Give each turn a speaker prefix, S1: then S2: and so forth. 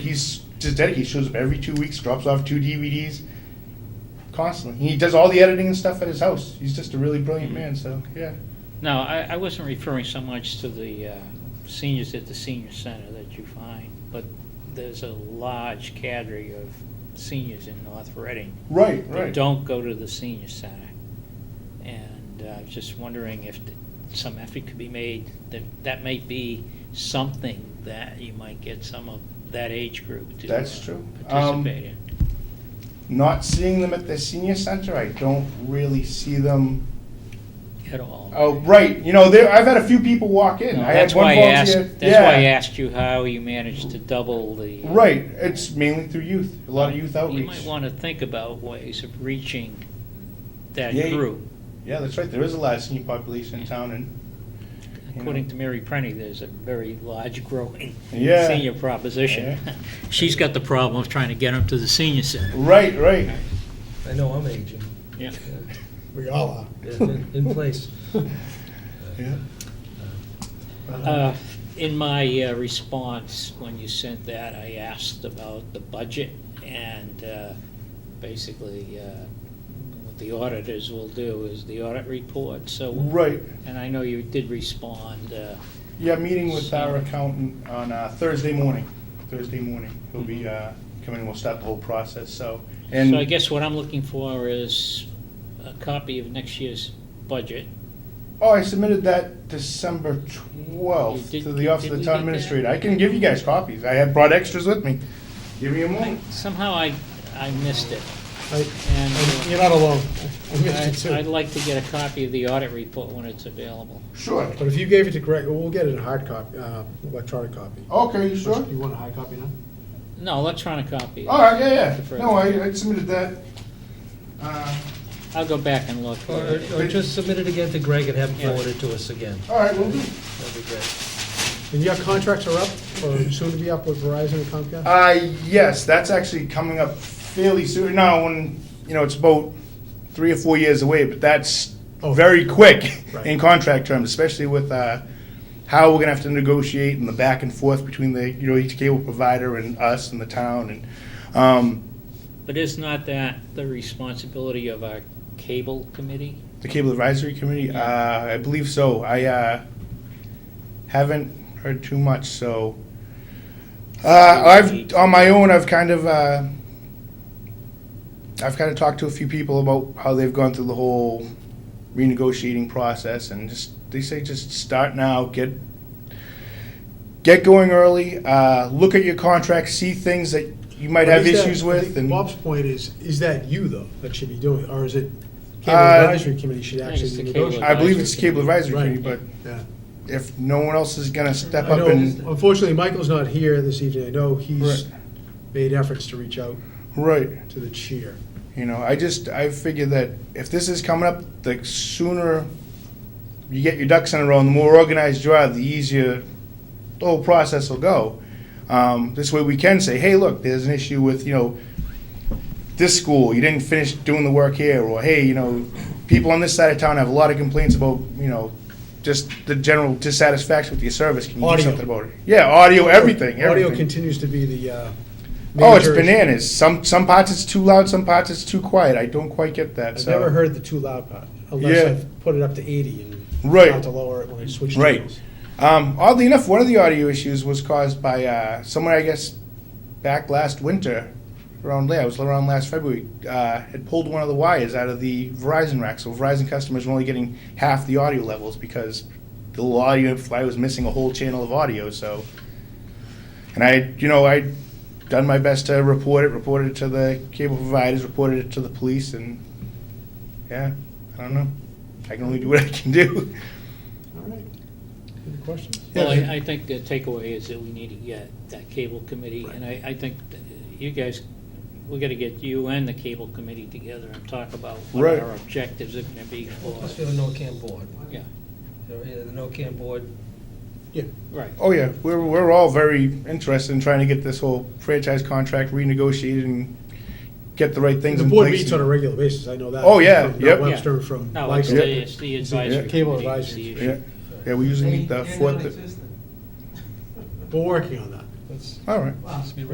S1: he's just dedicated. Shows up every two weeks, drops off two DVDs constantly. He does all the editing and stuff at his house. He's just a really brilliant man. So yeah,
S2: No, I, I wasn't referring so much to the uh, seniors at the senior center that you find, but there's a large cadre of seniors in North Reading
S1: right,
S2: that don't go to the senior center. And uh, I was just wondering if th- some effort could be made, that, that may be something that you might get some of that age group to
S1: That's
S2: uh,
S1: true. Um,
S2: participate in.
S1: Not seeing them at the senior center, I don't really see them.
S2: At all.
S1: Oh, right. You know, there. I've had a few people walk in.
S2: No,
S1: I
S2: That's
S1: had one
S2: why I asked,
S1: volunteer.
S2: that's why I asked you how you managed to double the.
S1: Right. It's mainly through youth. A lot of youth
S2: You
S1: outreach.
S2: might want to think about ways of reaching that
S1: Yeah, you-
S2: group.
S1: Yeah, that's right. There is a lot of senior population in town, and you know.
S2: According to Mary Prenny, there's a very large growing
S1: Yeah.
S2: senior proposition. She's got the problem of trying to get them to the senior center.
S1: Right, right.
S3: I know I'm aging,
S2: Yeah.
S4: We all are.
S3: in, in place.
S1: Yeah.
S2: Uh, In my uh, response, when you sent that, I asked about the budget and uh, basically uh, what the auditors will do is the audit report, so,
S1: Right.
S2: and I know you did respond. uh,
S1: Yeah, meeting with our accountant on uh, Thursday morning. Thursday morning, he'll be uh, coming. We'll start the whole process. So, and
S2: Mm-hmm. So I guess what I'm looking for is a copy of next year's budget.
S1: oh, I submitted that December
S2: You
S1: twelfth
S2: did-
S1: to the office
S2: did
S1: of the town
S2: we get that?
S1: administrator. I can give you guys copies. I had brought extras with me. Give me a
S2: I-
S1: moment.
S2: Somehow I, I missed it,
S4: I-
S2: and
S4: and You're not alone. We missed it
S2: I'd I'd
S4: too.
S2: like to get a copy of the audit report when it's available.
S1: Sure.
S4: But if you gave it to Greg, we'll get it in hard copy, uh, electronic copy.
S1: Okay, Oh, you sure?
S4: You want a hard copy now?
S2: No, electronic copy.
S1: All right, yeah, yeah. No, I, I submitted that. Uh,
S2: I'll go back and look.
S3: Or, or just submit it again to Greg and have him forward it to us again.
S1: all right, we'll do.
S3: That'd be great.
S4: And your contracts are up, or soon to be up with Verizon and Comcast?
S1: Uh, yes, that's actually coming up fairly soon. Now, when, you know, it's about three or four years away, but that's
S4: Oh.
S1: very quick
S4: Right.
S1: in contract terms, especially with, uh, how we're gonna have to negotiate and the back and forth between the, you know, each cable provider and us and the town and, um,
S2: But is not that the responsibility of our cable committee?
S1: the cable advisory committee. Uh, I believe so. I, uh, haven't heard too much, so. Uh, I've, on my own, I've kind of, uh, I've kind of talked to a few people about how they've gone through the whole renegotiating process and just, they say just start now, get, get going early, uh, look at your contract, see things that you might have
S4: Is that-
S1: issues
S4: I think
S1: with and.
S4: Bob's point is, is that you though, that should be doing, it, or is it cable
S1: Uh,
S4: advisory committee should
S2: I think it's
S4: actually be
S2: the cable
S4: negotiating?
S1: I believe it's the cable advisory
S4: Right.
S1: committee, but
S4: Yeah.
S1: if no one else is gonna step
S4: I
S1: up
S4: know,
S1: and,
S4: unfortunately, Michael's not here this evening. I know he's
S1: Right.
S4: made efforts to reach out
S1: right,
S4: to the chair.
S1: you know, I just, I figure that if this is coming up, the sooner you get your ducks in a row and the more organized you are, the easier the whole process will go. Um, this way we can say, hey, look, there's an issue with, you know, this school, you didn't finish doing the work here, or hey, you know, people on this side of town have a lot of complaints about, you know, just the general dissatisfaction with your service, can you do
S4: Audio.
S1: something about it? Yeah, audio, everything,
S4: Audio
S1: everything.
S4: continues to be the, uh.
S1: Oh, it's
S4: major issue.
S1: bananas. Some some parts it's too loud, some parts it's too quiet. I don't quite get that.
S4: I've
S1: so.
S4: never heard the too loud part, unless
S1: Yeah.
S4: I've put it up to eighty and
S1: Right.
S4: not to lower it when I switch
S1: Right.
S4: channels.
S1: Um, oddly enough, one of the audio issues was caused by uh, someone I guess back last winter, around yeah, it was around last February, uh, had pulled one of the wires out of the Verizon rack. So Verizon customers were only getting half the audio levels because the little audio fly was missing a whole channel of audio. So, and I, you know, I done my best to report it, reported it to the cable providers, reported it to the police, and yeah, I don't know. I can only do what I can do.
S4: All right. Any questions?
S2: Well, I, I think the takeaway is that we need to get that cable committee, and I, I think that you guys, we gotta get you and the cable committee together and talk about what
S1: Right.
S2: our objectives are gonna be for,
S3: Let's do the NOCAM board.
S2: yeah,
S3: The the NOCAM board,
S4: Yeah,
S2: right.
S1: Oh yeah, we're we're all very interested in trying to get this whole franchise contract renegotiated and get the right things
S4: the
S1: in
S4: board
S1: place.
S4: meets on a regular basis, I know that.
S1: Oh, yeah,
S4: From
S1: yep.
S4: Mount Webster, from.
S2: No, it's
S4: Lycra.
S2: the, it's the advisory
S4: Cable
S2: committee, it's the
S4: advisory.
S2: issue.
S1: Yeah, yeah, we usually meet the fourth.
S4: We're working on that.
S3: let's,
S1: All right.
S3: let's be